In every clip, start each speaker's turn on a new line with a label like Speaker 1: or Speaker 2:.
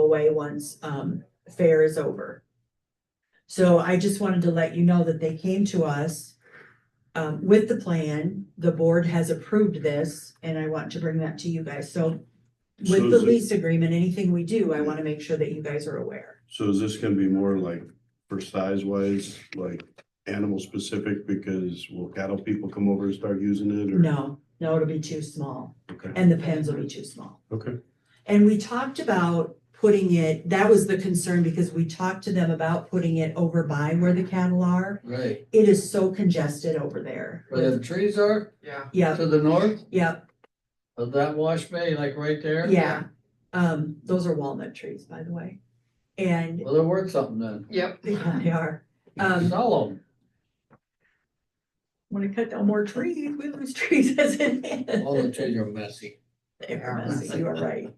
Speaker 1: away once um fair is over. So I just wanted to let you know that they came to us um with the plan. The board has approved this and I want to bring that to you guys. So with the
Speaker 2: Susan.
Speaker 1: lease agreement, anything we do, I want to make sure that you guys are aware.
Speaker 2: So is this gonna be more like for size wise, like animal specific because will cattle people come over and start using it or?
Speaker 1: No, no, it'll be too small
Speaker 2: Okay,
Speaker 1: and the pens will be too small.
Speaker 2: okay,
Speaker 1: And we talked about putting it, that was the concern because we talked to them about putting it over by where the cattle are.
Speaker 3: Right,
Speaker 1: It is so congested over there.
Speaker 3: where the trees are
Speaker 4: Yeah,
Speaker 1: Yep,
Speaker 3: to the north
Speaker 1: yep,
Speaker 3: of that wash bay, like right there.
Speaker 1: yeah. Um, those are walnut trees, by the way. And
Speaker 3: Well, they're worth something then.
Speaker 4: yep.
Speaker 1: yeah, they are. Um,
Speaker 3: Sell them.
Speaker 1: when we cut down more trees, we lose trees as it is.
Speaker 3: All the trees are messy.
Speaker 1: They're messy, you are right.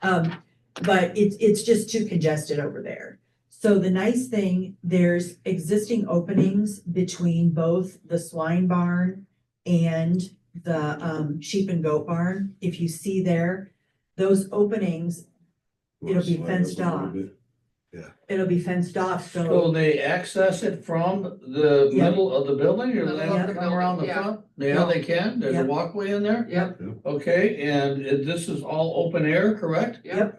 Speaker 1: Um, but it's, it's just too congested over there. So the nice thing, there's existing openings between both the swine barn and the, um, sheep and goat barn. If you see there, those openings, It'll be fenced off. it'll be fenced off, so
Speaker 3: So they access it from the
Speaker 1: Yeah.
Speaker 3: middle of the building or
Speaker 4: Middle
Speaker 3: they
Speaker 1: of
Speaker 3: have to
Speaker 4: the
Speaker 3: come around the
Speaker 4: building, yeah.
Speaker 3: front? Yeah, they can. There's
Speaker 1: Yeah.
Speaker 3: a walkway in there.
Speaker 4: Yep,
Speaker 3: Okay, and it- this is all open air, correct?
Speaker 4: yep.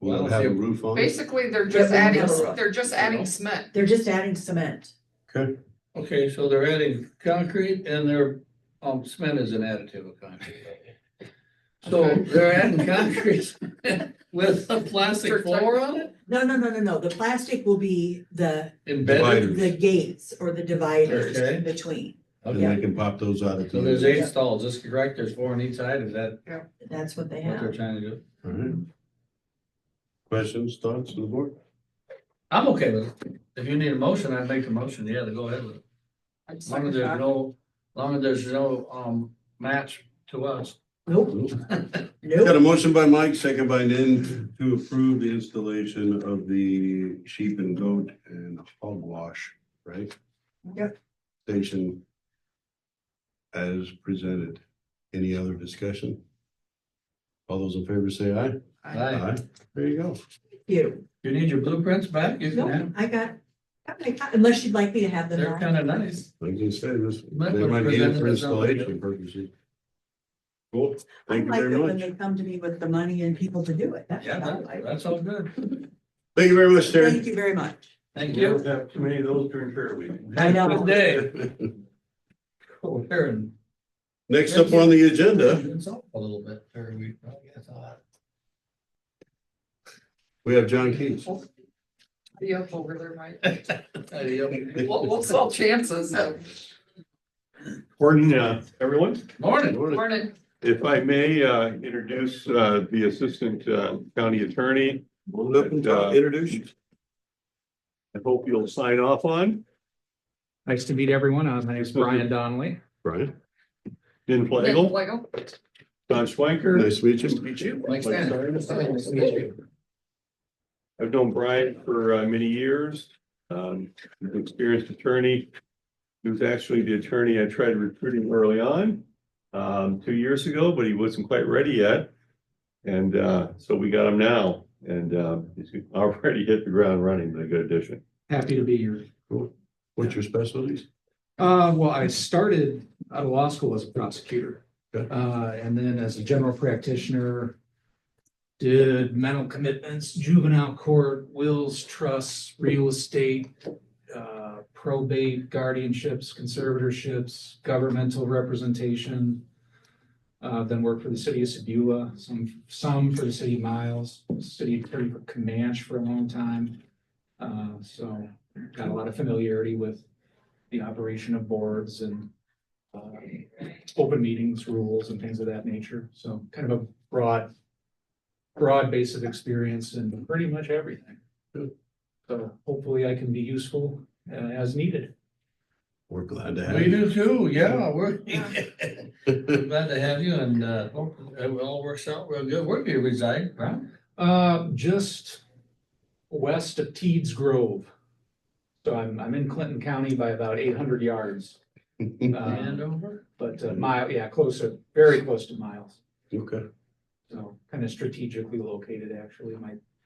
Speaker 2: Will it have a roof on it?
Speaker 4: Basically, they're
Speaker 1: Yeah,
Speaker 4: just
Speaker 1: we
Speaker 4: adding,
Speaker 1: have a-
Speaker 4: they're just adding cement.
Speaker 1: they're just adding cement.
Speaker 2: Okay,
Speaker 3: Okay, so they're adding concrete and they're, um, cement is an additive of concrete. So
Speaker 4: Okay.
Speaker 3: they're adding concrete with a plastic
Speaker 4: Mr.
Speaker 3: floor on it?
Speaker 1: No, no, no, no, no. The plastic will be the,
Speaker 3: Embedded?
Speaker 1: the gates or the dividers
Speaker 3: Okay.
Speaker 1: in between.
Speaker 2: and
Speaker 3: Okay,
Speaker 2: they can pop those out at the.
Speaker 3: so
Speaker 2: end.
Speaker 3: there's eight stalls, is this correct? There's four on each side, is that
Speaker 1: That's what they
Speaker 3: what they're
Speaker 1: have.
Speaker 3: trying to do?
Speaker 2: All right. Questions, thoughts on the board?
Speaker 3: I'm okay with it. If you need a motion, I'd make the motion, yeah, to go ahead with it.
Speaker 4: I'm
Speaker 3: As long as there's no, as long as there's no, um, match to us.
Speaker 1: Nope,
Speaker 2: Got
Speaker 1: nope.
Speaker 2: a motion by Mike, second by Nan to approve the installation of the sheep and goat and hog wash, right?
Speaker 1: Yep.
Speaker 2: Station as presented. Any other discussion? All those in favor say aye.
Speaker 3: Aye.
Speaker 2: There you go.
Speaker 1: You,
Speaker 3: You need your blueprints back? You can have
Speaker 1: nope,
Speaker 3: them.
Speaker 1: I got, got my co- unless you'd like me to have them.
Speaker 3: They're
Speaker 1: all.
Speaker 3: kind of nice.
Speaker 2: Like you said, this,
Speaker 3: Might
Speaker 2: they
Speaker 3: wanna
Speaker 2: might need it
Speaker 3: present
Speaker 2: for
Speaker 3: it as well.
Speaker 2: installation purposes. Cool,
Speaker 1: I
Speaker 2: thank you
Speaker 1: like
Speaker 2: very
Speaker 1: it when
Speaker 2: much.
Speaker 1: they come to me with the money and people to do it. That's
Speaker 3: Yeah,
Speaker 1: what I
Speaker 3: that-
Speaker 1: like.
Speaker 3: that's all good.
Speaker 2: Thank you very much,
Speaker 1: Thank
Speaker 2: Terry.
Speaker 1: you very much.
Speaker 3: Thank you.
Speaker 2: have too many of those during prayer week.
Speaker 1: I know.
Speaker 3: Good day. Cool. Here and-
Speaker 2: Next up on the agenda,
Speaker 3: It's up A little bit. There we- I guess I'll-
Speaker 2: we have John Keats.
Speaker 4: Yep, over there, Mike.
Speaker 3: There you go.
Speaker 4: Well, what's all chances?
Speaker 5: Morning, uh, everyone.
Speaker 3: Morning.
Speaker 4: Morning.
Speaker 5: If I may, uh, introduce, uh, the Assistant uh, County Attorney. Uh,
Speaker 2: Introduce you.
Speaker 5: I hope you'll sign off on,
Speaker 6: Nice to meet everyone. Uh, My name is Brian Donnelly.
Speaker 2: Brian,
Speaker 5: Lynn Flagel,
Speaker 4: Flagel.
Speaker 5: Don Schwanker.
Speaker 2: nice to meet you.
Speaker 5: meet you.
Speaker 3: Mike Stein. Nice to meet you.
Speaker 5: I've known Brian for uh, many years, um, he's an experienced attorney. He was actually the attorney I tried recruiting early on, um, two years ago, but he wasn't quite ready yet. And, uh, so we got him now and, um, he's already hit the ground running, but a good addition.
Speaker 6: Happy to be here.
Speaker 2: What's your specialties?
Speaker 6: Uh, well, I started out of law school as a prosecutor.
Speaker 2: Okay.
Speaker 6: Uh, and then as a general practitioner, did mental commitments, juvenile court, wills, trusts, real estate, uh, probate, guardianships, conservatorships, governmental representation. Uh, then worked for the city of Sebula, some, some for the city of Miles, city attorney for Comanche for a long time. Uh, so got a lot of familiarity with the operation of boards and uh, open meetings rules and things of that nature. So kind of a broad, broad base of experience in pretty much everything. So hopefully I can be useful uh, as needed.
Speaker 2: We're glad to have
Speaker 3: We do too, yeah, we're
Speaker 2: you.
Speaker 3: glad to have you and, uh, hope it all works out real good. Where do you reside, Brian?
Speaker 6: Uh, Just west of Teeds Grove. So I'm, I'm in Clinton County by about eight hundred yards. Uh,
Speaker 3: Andover?
Speaker 6: But uh, mile, yeah, closer, very close to miles.
Speaker 2: Okay,
Speaker 6: So kind of strategically located, actually. My